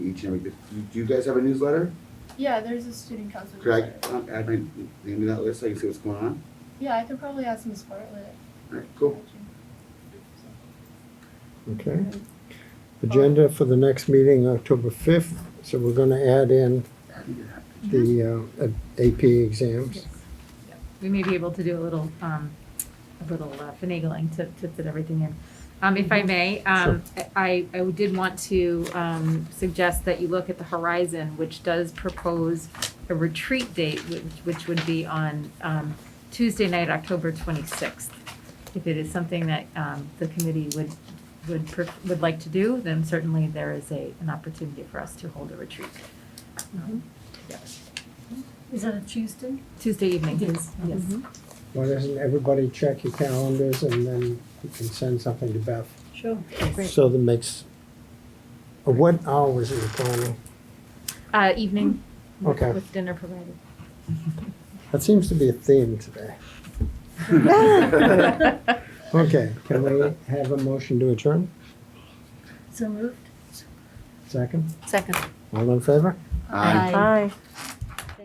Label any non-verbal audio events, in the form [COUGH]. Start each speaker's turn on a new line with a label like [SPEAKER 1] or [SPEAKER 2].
[SPEAKER 1] each and every, do you guys have a newsletter?
[SPEAKER 2] Yeah, there's a student council.
[SPEAKER 1] Could I
[SPEAKER 2] newsletter.
[SPEAKER 1] uh, add my name to that list, so I can see what's going on?
[SPEAKER 2] Yeah, I could probably add some support with it.
[SPEAKER 1] All right, cool.
[SPEAKER 3] Okay. Agenda for the next meeting, October fifth, so we're gonna add in the uh, AP exams.
[SPEAKER 4] we may be able to do a little, um, a little uh, finagling to, to fit everything in. Um, if I may, um, I, I did want to, um, suggest that you look at the horizon, which does propose a retreat date, which, which would be on, um, Tuesday night, October twenty-sixth. If it is something that, um, the committee would, would, per- would like to do, then certainly there is a, an opportunity for us to hold a retreat. Um,
[SPEAKER 5] Is that a Tuesday?
[SPEAKER 4] Tuesday evening,
[SPEAKER 5] It
[SPEAKER 4] yes,
[SPEAKER 5] is.
[SPEAKER 4] yes.
[SPEAKER 3] Why doesn't everybody check your calendars and then you can send something to Beth?
[SPEAKER 5] Sure.
[SPEAKER 3] So that makes, uh, what hours are you planning?
[SPEAKER 4] Uh, evening. with-
[SPEAKER 3] Okay.
[SPEAKER 4] With
[SPEAKER 3] [LAUGHS]
[SPEAKER 4] dinner provided.
[SPEAKER 3] That seems to be a theme today. Okay, can we have a motion to adjourn?
[SPEAKER 5] So moved?
[SPEAKER 3] Second?
[SPEAKER 6] Second.
[SPEAKER 3] All in favor?
[SPEAKER 1] Aye.
[SPEAKER 6] Aye.